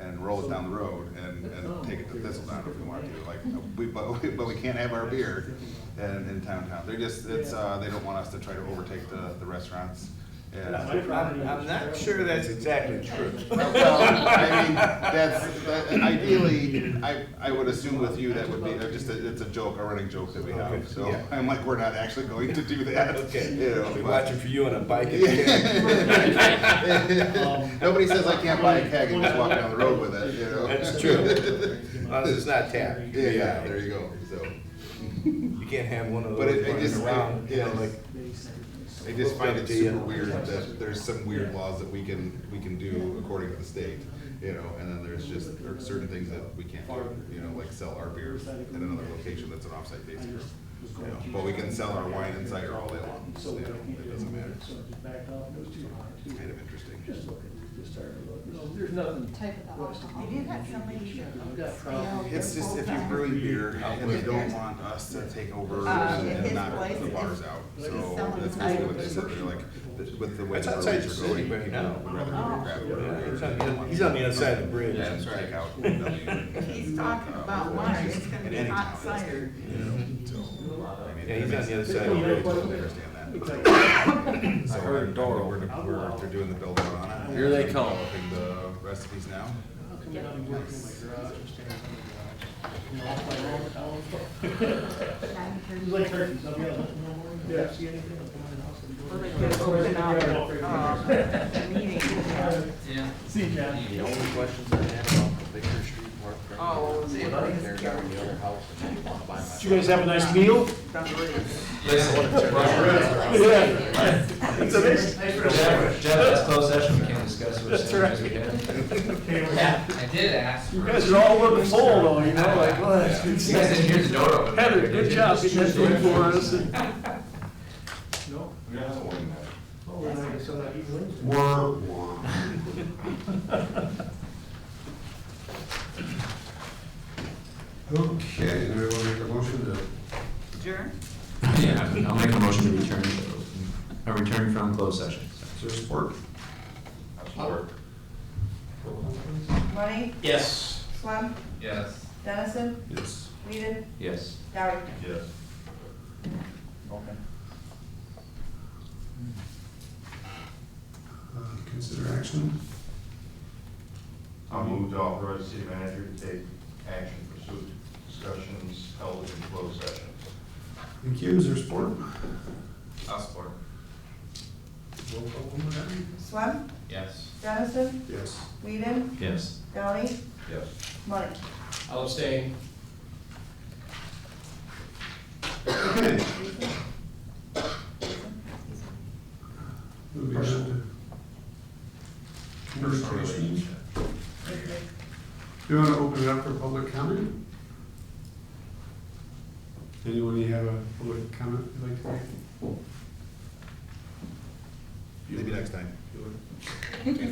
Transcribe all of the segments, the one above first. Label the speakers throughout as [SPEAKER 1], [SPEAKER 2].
[SPEAKER 1] and roll it down the road and, and take it to Thistledown if we want to, like, we, but, we- but we can't have our beer in, in town town. They're just, it's, uh, they don't want us to try to overtake the, the restaurants. And,
[SPEAKER 2] I'm, I'm not sure that's exactly true.
[SPEAKER 1] well, I mean, that's, that- ideally, I, I would assume with you that would be, uh, just, a- it's a joke, a running joke that we have, so
[SPEAKER 2] Yeah.
[SPEAKER 1] I'm like, we're not actually going to do that. you know,
[SPEAKER 2] Okay, be
[SPEAKER 1] but-
[SPEAKER 2] watching for you on a bike.
[SPEAKER 1] Nobody says I can't buy a keg and just walk down the road with it, you know?
[SPEAKER 2] That's true. Unless it's not tapped.
[SPEAKER 1] Yeah, yeah, there you go, so.
[SPEAKER 2] You can't have one of
[SPEAKER 1] But
[SPEAKER 2] those
[SPEAKER 1] it- it just-
[SPEAKER 2] running around, you know,
[SPEAKER 1] yeah.
[SPEAKER 2] like,
[SPEAKER 1] I just find it super weird that there's some weird laws that we can, we can do according to the state, you know, and then there's just, there are certain things that we can't do, you know, like sell our beer at another location that's an offsite based group. You know, but we can sell our wine and cider all day long, so, you know, it doesn't matter, it's kind of interesting.
[SPEAKER 3] There's nothing.
[SPEAKER 4] type of the alcohol. We did have somebody here.
[SPEAKER 3] I've got problems.
[SPEAKER 1] It's just if you're brewing beer and they don't want us to take over
[SPEAKER 4] Uh,
[SPEAKER 1] and
[SPEAKER 4] at
[SPEAKER 1] and
[SPEAKER 4] his
[SPEAKER 1] knock the
[SPEAKER 4] place,
[SPEAKER 1] bars
[SPEAKER 4] it's-
[SPEAKER 1] out,
[SPEAKER 4] it's
[SPEAKER 1] so
[SPEAKER 4] selling
[SPEAKER 1] that's basically what they said, they're like, th- with the way
[SPEAKER 2] It's
[SPEAKER 1] the roads
[SPEAKER 2] outside the
[SPEAKER 1] are
[SPEAKER 2] city
[SPEAKER 1] going,
[SPEAKER 2] right
[SPEAKER 1] people
[SPEAKER 2] now.
[SPEAKER 1] would rather go grab
[SPEAKER 2] yeah, it's on
[SPEAKER 1] whatever.
[SPEAKER 2] the oth- he's on the other side of the bridge.
[SPEAKER 1] Yeah, that's right. Take out W and,
[SPEAKER 4] If he's talking
[SPEAKER 1] uh,
[SPEAKER 4] about
[SPEAKER 1] or
[SPEAKER 4] wine,
[SPEAKER 1] just
[SPEAKER 4] it's gonna
[SPEAKER 1] in
[SPEAKER 4] be
[SPEAKER 1] any
[SPEAKER 4] hot
[SPEAKER 1] town, it's-
[SPEAKER 4] cider.
[SPEAKER 1] you know, so, I mean, that
[SPEAKER 2] Yeah, he's on
[SPEAKER 1] makes
[SPEAKER 2] the other
[SPEAKER 1] sense. I
[SPEAKER 2] side of the
[SPEAKER 1] really
[SPEAKER 2] bridge.
[SPEAKER 1] totally understand that. So I
[SPEAKER 5] heard Doral.
[SPEAKER 1] heard Doral, we're, they're doing the build out on it.
[SPEAKER 5] Here they come.
[SPEAKER 1] Developing the recipes now.
[SPEAKER 4] Like turkeys, Well, they could have opened up, um, a meeting.
[SPEAKER 5] Yeah.
[SPEAKER 3] See, John.
[SPEAKER 5] The only questions I have on the Baker Street Park.
[SPEAKER 4] Oh, they-
[SPEAKER 5] Right there, down in the other house, and I want to buy my.
[SPEAKER 6] Did you guys have a nice meal? Yeah.
[SPEAKER 2] It's amazing.
[SPEAKER 7] Jeff, Jeff, that's closed session, we can't discuss which
[SPEAKER 6] That's right.
[SPEAKER 7] sandwiches we had.
[SPEAKER 6] You
[SPEAKER 7] I did ask. for-
[SPEAKER 6] guys are all looking full though, you know, like, well, that's good
[SPEAKER 7] You guys
[SPEAKER 6] stuff.
[SPEAKER 7] didn't hear the door open.
[SPEAKER 6] Heather, good job getting that food for us. and- Oh,
[SPEAKER 8] Okay, do we want to make a motion to,
[SPEAKER 4] Adjourn?
[SPEAKER 7] Yeah, I'll make a motion to return, a return from closed session.
[SPEAKER 8] is there support? Support.
[SPEAKER 4] Money,
[SPEAKER 6] Yes.
[SPEAKER 4] Swam,
[SPEAKER 7] Yes.
[SPEAKER 4] Dennison,
[SPEAKER 8] Yes.
[SPEAKER 4] Whedon,
[SPEAKER 7] Yes.
[SPEAKER 4] Dowie.
[SPEAKER 1] Yes.
[SPEAKER 8] Uh, Consider action?
[SPEAKER 9] I move to authorize the city manager to take action pursuant to discussions held in closed session.
[SPEAKER 8] Thank you, is there support?
[SPEAKER 7] I'll support.
[SPEAKER 8] Roll call, Alderman Henry?
[SPEAKER 4] Swam,
[SPEAKER 7] Yes.
[SPEAKER 4] Dennison,
[SPEAKER 8] Yes.
[SPEAKER 4] Whedon,
[SPEAKER 7] Yes.
[SPEAKER 4] Dowie,
[SPEAKER 9] Yes.
[SPEAKER 4] Money.
[SPEAKER 6] I'll abstain.
[SPEAKER 8] Okay. Moving on to communications. Do you want to open it up for public comment? Anyone, you have a public comment you'd like to make?
[SPEAKER 1] Maybe next time.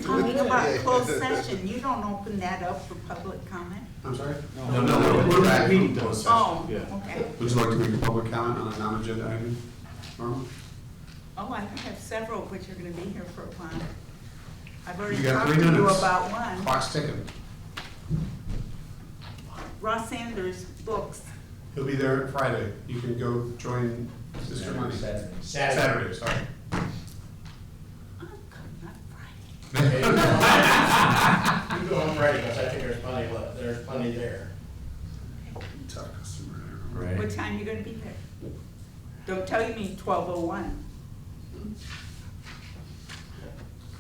[SPEAKER 4] Talking about closed session, you don't open that up for public comment?
[SPEAKER 8] I'm sorry?
[SPEAKER 2] No, no,
[SPEAKER 8] We're- we're back
[SPEAKER 2] meeting
[SPEAKER 8] from closed session.
[SPEAKER 4] Oh,
[SPEAKER 2] yeah.
[SPEAKER 4] okay.
[SPEAKER 8] Would you like to make a public comment on a non-agenda item, Norma?
[SPEAKER 4] Oh, I have several, which are gonna be here for a while. I've already
[SPEAKER 8] You got
[SPEAKER 4] talked
[SPEAKER 8] three
[SPEAKER 4] to you
[SPEAKER 8] minutes.
[SPEAKER 4] about one.
[SPEAKER 8] Clock's ticking.
[SPEAKER 4] Ross Sanders' books.
[SPEAKER 8] He'll be there Friday. You can go join Sister Money. Saturday. Saturday, sorry.
[SPEAKER 4] I'm coming up Friday.
[SPEAKER 6] You go on Friday, because I think there's plenty, left- there's plenty there.
[SPEAKER 8] Tough customer.
[SPEAKER 4] What time you gonna be there? Don't tell you mean twelve oh one.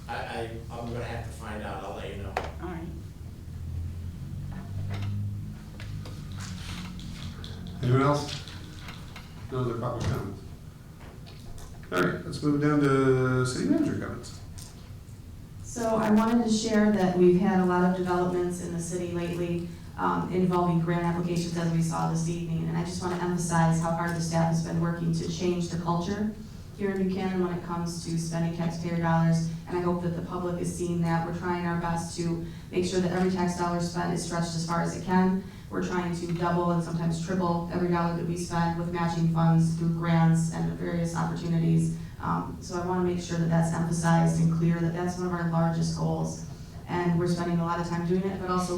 [SPEAKER 6] I, I, I'm gonna have to find out, I'll let you know.
[SPEAKER 4] All right.
[SPEAKER 8] Anyone else? No other public comments? All right, let's move down to city manager comments.
[SPEAKER 10] So I wanted to share that we've had a lot of developments in the city lately um, involving grant applications as we saw this evening. And I just want to emphasize how hard the staff has been working to change the culture here in Buchanan when it comes to spending taxpayer dollars. And I hope that the public is seeing that. We're trying our best to make sure that every tax dollar spent is stretched as far as it can. We're trying to double and sometimes triple every dollar that we spend with matching funds through grants and various opportunities. Um, so I want to make sure that that's emphasized and clear, that that's one of our largest goals. and we're spending a lot of time doing it, but also